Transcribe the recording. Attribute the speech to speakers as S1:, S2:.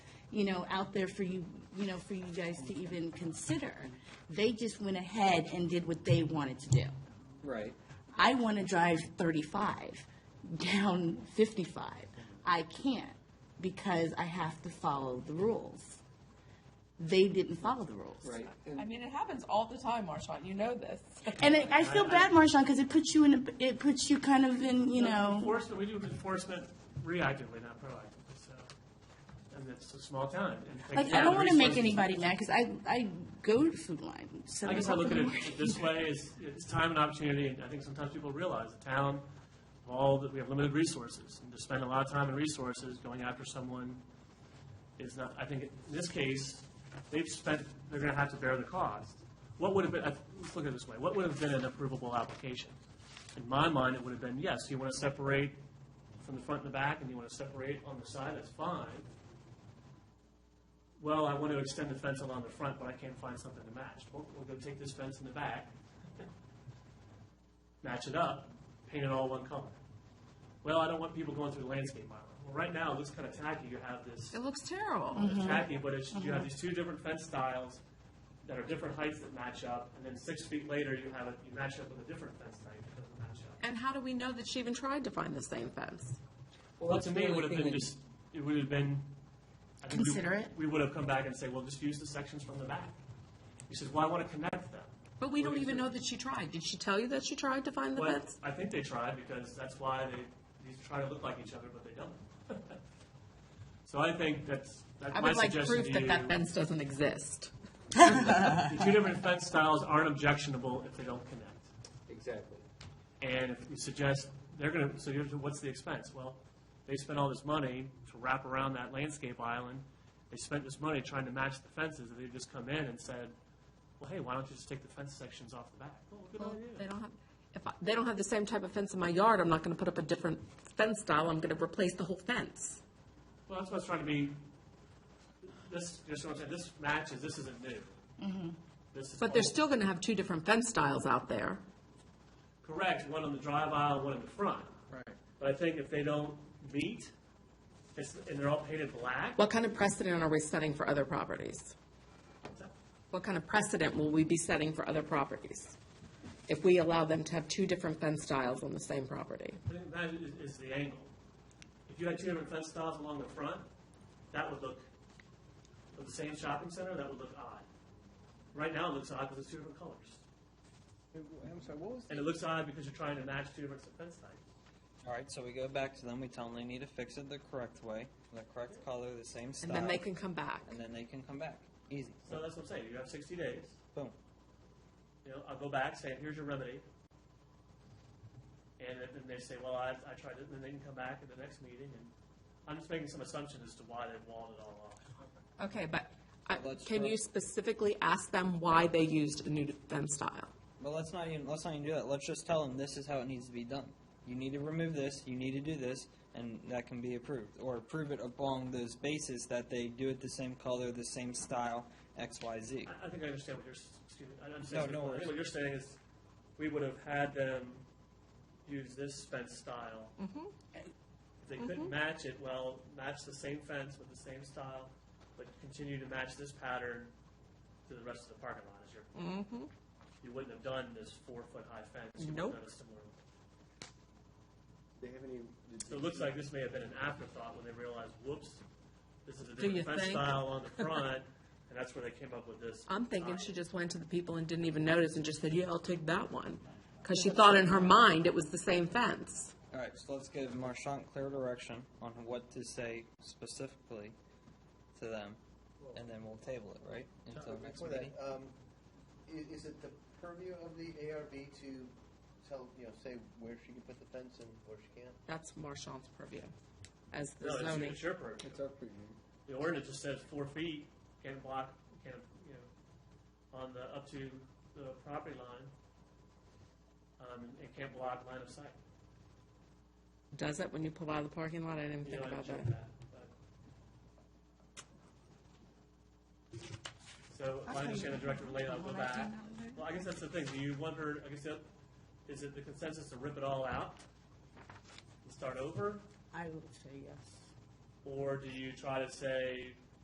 S1: you know, out there for you, you know, for you guys to even consider. They just went ahead and did what they wanted to do.
S2: Right.
S1: I want to drive 35 down 55. I can't because I have to follow the rules. They didn't follow the rules.
S2: Right.
S3: I mean, it happens all the time, Marshawn. You know this.
S1: And I, I feel bad, Marshawn, because it puts you in, a, it puts you kind of in, you know,
S4: Enforcement, we do enforcement reactively, not proactively, so, and it's a small town. and they
S1: like, I
S4: have
S1: don't
S4: the
S1: want to make
S4: resources.
S1: anybody mad because I, I go to Food Line. So
S4: I guess I look at it this way, is, it's time and opportunity, and I think sometimes people realize the town, all, that we have limited resources, and to spend a lot of time and resources going after someone is not, I think, in this case, they've spent, they're gonna have to bear the cost. What would have been, let's look at it this way, what would have been an approvable application? In my mind, it would have been, yes, you wanna separate from the front and the back, and you wanna separate on the side, that's fine well, I want to extend the fence along the front, but I can't find something to match. Well, we'll go take this fence in the back, match it up, paint it all one color. Well, I don't want people going through the landscape aisle. Well, right now, it looks kind of tacky. You have this,
S3: It looks terrible.
S4: it's tacky, but it's, you have these two different fence styles that are different heights that match up, and then six feet later, you have it, you match up with a different fence type that doesn't match up.
S3: And how do we know that she even tried to find the same fence?
S4: Well, to me, it would have been just, it would have been. I think we-
S1: Considerate.
S4: We would have come back and say, well, just use the sections from the back. He says, well, I want to connect them.
S3: But we don't
S4: Well,
S3: even
S4: you-
S3: know that she tried. Did she tell you that she tried to find the
S4: Well,
S3: fence?
S4: I think they tried because that's why they, these try to look like each other, but they don't. So I think that's, that's
S3: I
S4: my
S3: would like
S4: suggestion
S3: proof
S4: to
S3: that
S4: you.
S3: that fence doesn't exist.
S4: The two different fence styles aren't objectionable if they don't connect.
S2: Exactly.
S4: And if you suggest, they're gonna, so you're, what's the expense? Well, they spent all this money to wrap around that landscape island. They spent this money trying to match the fences, and they've just come in and said, well, hey, why don't you just take the fence sections off the back? Well, good
S3: Well, They
S4: idea.
S3: don't have, if I, they don't have the same type of fence in my yard, I'm not gonna put up a different fence style, I'm gonna replace the whole fence.
S4: Well, that's what's trying to be, this, just what I'm saying, this matches, this isn't new. This is
S3: Mm-hmm. But they're
S4: old.
S3: still gonna have two different fence styles out there.
S4: Correct, one on the drive aisle, one in the front.
S2: Right.
S4: But I think if they don't meet, it's, and they're all painted black,
S3: What kind of precedent are we setting for other properties? What kind of precedent will we be setting for other properties? If we allow them to have two different fence styles on the same property?
S4: I think that is, is the angle. If you had two different fence styles along the front, that would look, with the same shopping center, that would look odd. Right now, it looks odd because it's two different colors.
S2: I'm sorry, what was
S4: And it looks odd because you're trying to match two different fence types.
S5: All right, so we go back to them. We tell them they need to fix it the correct way, the correct color, the same style.
S3: And then they can come back.
S5: and then they can come back. Easy.
S4: So that's what I'm saying, you have sixty days,
S5: Boom.
S4: you know, I'll go back, say, here's your remedy. And then then they say, well, I, I tried it, and then they can come back at the next meeting, and I'm just making some assumptions as to why they walled it all off.
S3: Okay, but I-
S5: Let's
S3: can
S5: try-
S3: you specifically ask them why they used a new fence style?
S5: But let's not even let's not even do that. Let's just tell them this is how it needs to be done. You need to remove this. You need to do this, and that can be approved or approve it along those bases that they do it the same color, the same style, X, Y, Z.
S4: I, I think I understand what you're, s- excuse me, I
S5: No,
S4: understand,
S5: no
S4: what- I
S5: worries.
S4: think what you're saying is, we would have had them use this fence style.
S3: Mm-hmm.
S4: If they couldn't match it, well, match the same fence with the same style, but continue to match this pattern to the rest of the parking lot, is your You wouldn't have done this four-foot-high fence. You would
S3: Mm-hmm. Nope.
S4: have done a similar-
S2: They have any?
S4: So it looks like this may have been an afterthought when they realized, whoops, this is a
S3: you
S4: different fence
S3: think?
S4: style on the front, and that's where they came up with this.
S3: I'm thinking
S4: style.
S3: she just went to the people and didn't even notice and just said, yeah, I'll take that one. Because she thought in her mind it was the same fence.
S5: All right, so let's give Marchant clear direction on what to say specifically to them, and then we'll table it, right? Until next
S6: Before that,
S5: meeting.
S6: um, i- is it the purview of the ARB to tell, you know, say where she can put the fence and where she can't?
S3: That's Marchand's purview as the
S4: No, it's your-
S3: zoning.
S4: it's your purview.
S2: It's our preview.
S4: The ordinance just says four feet, can't block, can't, you know, on the, up to the property line. Um, and it can't block line of sight.
S3: Does it when you pull out of the parking lot? I didn't
S4: You
S3: think
S4: know, I
S3: about that.
S4: checked but- So, if I understand the director related, I'll go back. Well, I guess that's the thing, do you want her, I guess, that- is it the consensus to rip it all out? And start over,
S1: I would say yes.
S4: or do you try to say,